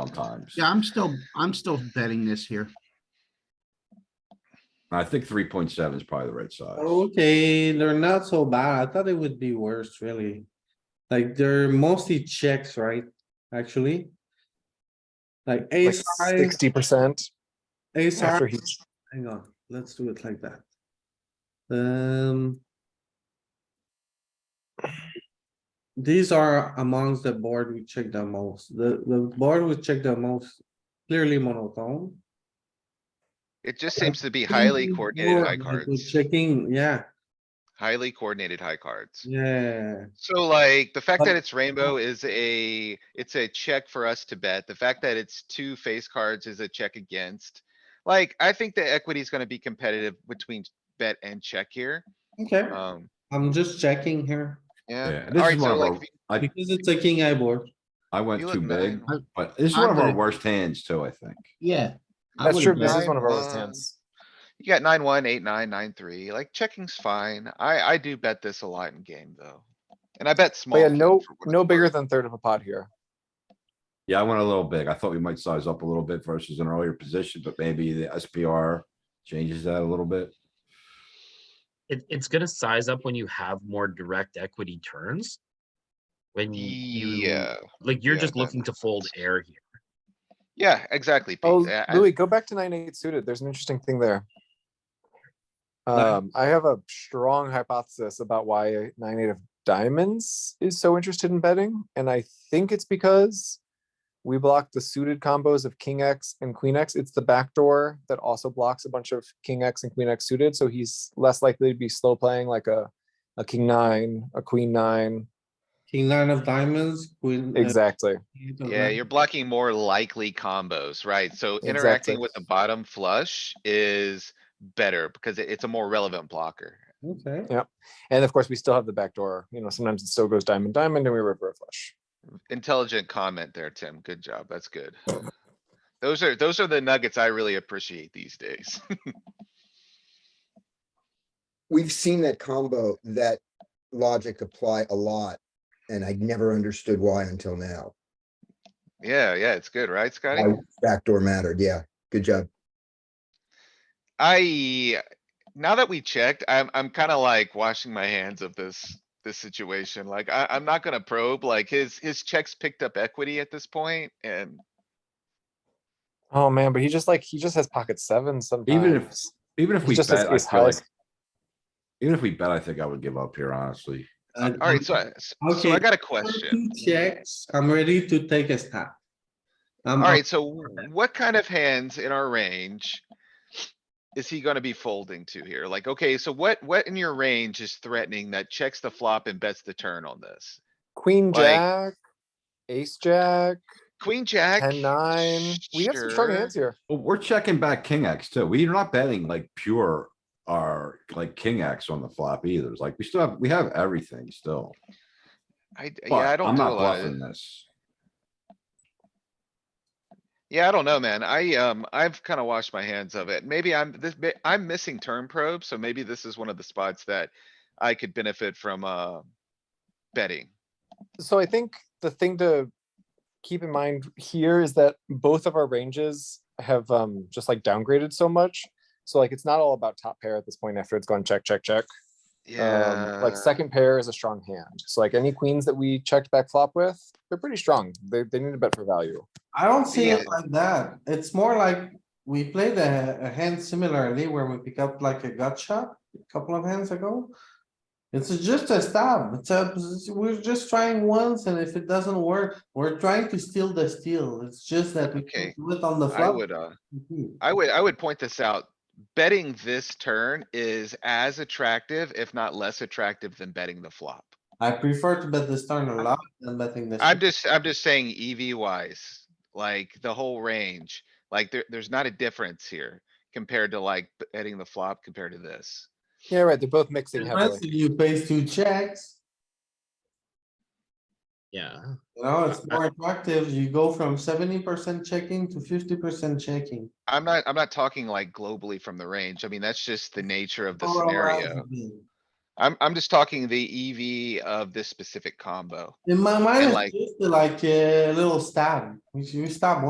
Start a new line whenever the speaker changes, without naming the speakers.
sometimes.
Yeah, I'm still, I'm still betting this here.
I think three point seven is probably the right size.
Oh,
Okay, they're not so bad. I thought it would be worse, really. Like, they're mostly checks, right? Actually. Like
like
ace high,
sixty percent
ace
after
high,
he.
hang on, let's do it like that. Um. These are amongst the board we check the most. The, the board we check the most clearly monotone.
It just seems to be highly coordinated high cards,
Checking, yeah,
highly coordinated high cards.
yeah.
So like, the fact
But-
that it's rainbow is a, it's a check for us to bet. The fact that it's two face cards is a check against. Like, I think the equity is gonna be competitive between bet and check here.
Okay,
Um,
I'm just checking here
yeah.
Yeah, this
Alright,
is one
so
of
like,
our,
if you-
I,
because it's a king eye board.
I went
you
too
look
big,
nine.
but this is
I'm
one of our
gonna-
worst hands too, I think.
Yeah. I
That's true.
would've
This
bet-
is one of our worst
nine,
hands.
you got nine, one, eight, nine, nine, three, like checking's fine. I, I do bet this a lot in game though. And I bet small.
But Oh, yeah,
here
no,
for what
no
it's
bigger
worth.
than third of a pot here.
Yeah, I went a little big. I thought we might size up a little bit versus an earlier position, but maybe the SPR changes that a little bit.
It, it's gonna size up when you have more direct equity turns.
Mm,
When you.
Yeah,
Like, you're
yeah,
just
that
looking to fold air here.
yeah, exactly. Pete.
Oh,
Uh, I-
Louis, go back to nine, eight suited. There's an interesting thing there. Um, I have a strong hypothesis about why nine, eight of diamonds is so interested in betting, and I think it's because we block the suited combos of king X and queen X. It's the backdoor that also blocks a bunch of king X and queen X suited, so he's less likely to be slow playing like a, a king nine, a queen nine.
King nine of diamonds, queen. uh,
Exactly.
eight of
Yeah,
diamonds.
you're blocking more likely combos, right? So
Exactly.
interacting with the bottom flush is better because it- it's a more relevant blocker.
Okay,
And of course, we still have the backdoor. You know, sometimes it still goes diamond, diamond, and we river a flush.
Intelligent comment there, Tim. Good job. That's good. Those are, those are the nuggets I really appreciate these days.
we've seen that combo, that logic apply a lot. And I never understood why until now.
Yeah, yeah, it's good, right, Scotty?
Why Backdoor mattered. Yeah, good job.
I, now that we checked, I'm, I'm kinda like washing my hands of this, this situation. Like, I, I'm not gonna probe, like, his, his checks picked up equity at this point and
Oh man, but he just like he just has pocket sevens sometimes.
Even if
He's
we
just as
bet, I
ace
feel like,
highs.
even if we bet, I think I would give up here, honestly.
uh,
Alright, so, I- s- so I
Okay.
got a question.
two Checks, I'm ready to take a stab. Um, I'm up.
Alright, so w- what kind of hands in our range? Is he gonna be folding to here? Like, okay, so what, what in your range is threatening that checks the flop and bets the turn on this?
Queen
like-
Jack, Ace Jack,
Queen, jack?
ten nine. We have some strong
sure.
hands here.
Well, we're checking back king X too. We're not betting like pure or like king X on the flop either. It's like we still have, we have everything still.
I, d-
But
yeah, I don't
I'm
do a
not
lot. of-
bluffing this.
Yeah, I don't know, man. I, um, I've kinda washed my hands of it. Maybe I'm, this, may- I'm missing turn probe, so maybe this is one of the spots that I could benefit from, uh, betting.
So I think the thing to keep in mind here is that both of our ranges have um just like downgraded so much. So like it's not all about top pair at this point after it's gone check, check, check.
Yeah.
Um, like second pair is a strong hand. So like any queens that we checked back flop with, they're pretty strong. They, they need a bet for value.
I don't see
Yeah.
it like that. It's more like we played a, a hand similarly where we pick up like a gut shot a couple of hands ago. It's just a stab. It's a, we're just trying once and if it doesn't work, we're trying to steal the steal. It's just that we
Okay.
can't do it on the
I
flop. Mm-hmm.
would, uh, I would, I would point this out. Betting this turn is as attractive, if not less attractive than betting the flop.
I prefer to bet this turn a lot than betting this.
I'm just, I'm just saying EV wise, like the whole range, like there, there's not a difference here compared to like betting the flop compared to this.
Yeah, right. They're both mixing
Unless
heavily.
you pays two checks,
Yeah.
you know, it's more attractive. You go from seventy percent checking to fifty percent checking.
I'm not,
Oh,
I'm not talking like globally from the range. I mean, that's just the nature of the
Polarized
scenario.
being.
I'm, I'm just talking the EV of this specific combo.
In my mind,
like-
it's just like a little stab. You- You stab